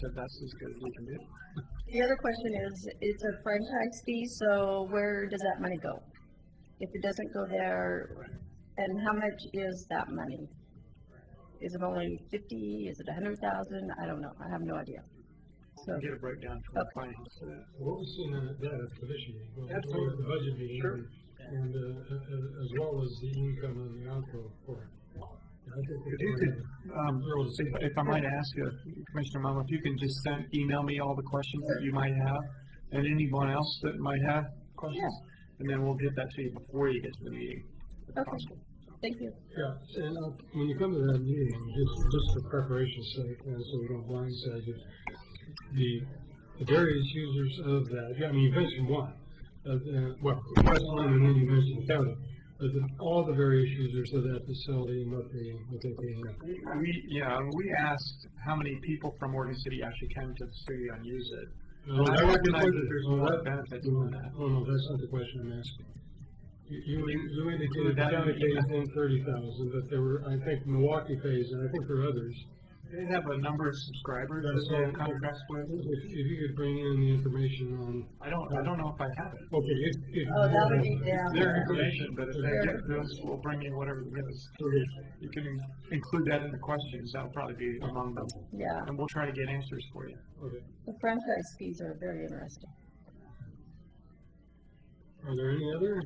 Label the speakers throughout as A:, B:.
A: said that's as good as we can do.
B: The other question is, it's a franchise fee, so where does that money go? If it doesn't go there, and how much is that money? Is it only fifty, is it a hundred thousand? I don't know, I have no idea. So,
A: And get a breakdown from the finance. uh,
C: What we've seen in that is for this year. Well, it's
A: Absolutely.
C: with The budget meeting.
A: Sure.
C: And, uh, a- a- as well as the income and the outgo for it. And I think
A: If
C: it's
A: you could,
C: already-
A: um, if, if I might ask you, Commissioner Mom, if you can just send, email me all the questions that you might have, and anyone else that might have questions, and then we'll get that to you before you get to the meeting, if
B: Okay.
A: possible.
B: thank you.
C: Yeah, and uh, when you come to that meeting, just, just for preparation's sake, and so we don't blindside you, the, the various users of that, I mean, you mentioned one, uh, the- well, West London, and then you mentioned County, but the- all the various users of that facility and what they, what they pay. in.
A: We, yeah, we asked how many people from Oregon City actually came to the studio and use it.
C: Well,
A: I
C: that-
A: recognize that there's a
C: well,
A: lot of
C: that-
A: benefits
C: no,
A: from that.
C: No, no, that's not the question I'm asking. You- You, you indicated
A: That-
C: County pays in thirty thousand, but there were, I think Milwaukee pays, and I think there are others.
A: They have a number of subscribers
C: That's
A: that they have
C: all.
A: contracts with.
C: If, if you could bring in the information on,
A: I don't, I don't know if I have it.
C: okay, if, if.
B: Oh, that would be down.
A: Their information, but if they
B: Sure.
A: get this, we'll bring you whatever it is. You can in- include that in the questions, that'll probably be among them,
B: Yeah,
A: and we'll try to get answers for you.
C: Okay.
B: the franchise fees are very interesting.
C: Are there any other?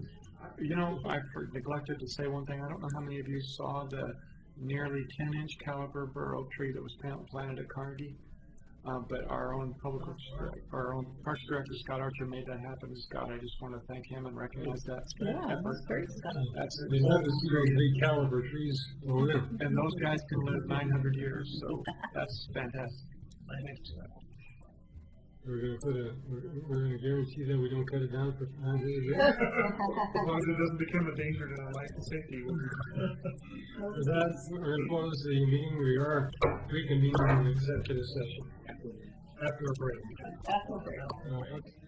A: You know, I for- neglected to say one thing, I don't know how many of you saw the nearly ten inch caliber bur oak tree that was pan- planted at Carnegie. Uh, but our own public, works dir- our own parks director, Scott Archer, made that happen, Scott, I just wanna thank him and recognize that
B: Yeah,
A: effort.
B: that's very exciting.
A: That's,
C: They have this very big caliber trees over there.
A: and those guys can live nine hundred years, so that's fantastic. Thanks.
C: We're gonna put a, we're, we're gonna guarantee that we don't cut it down for five years.
D: As long as it doesn't become a danger to life and safety.
C: With that, we're gonna close the meeting, we are reconvening in executive session. After a break.
B: That's what we're-
C: Uh,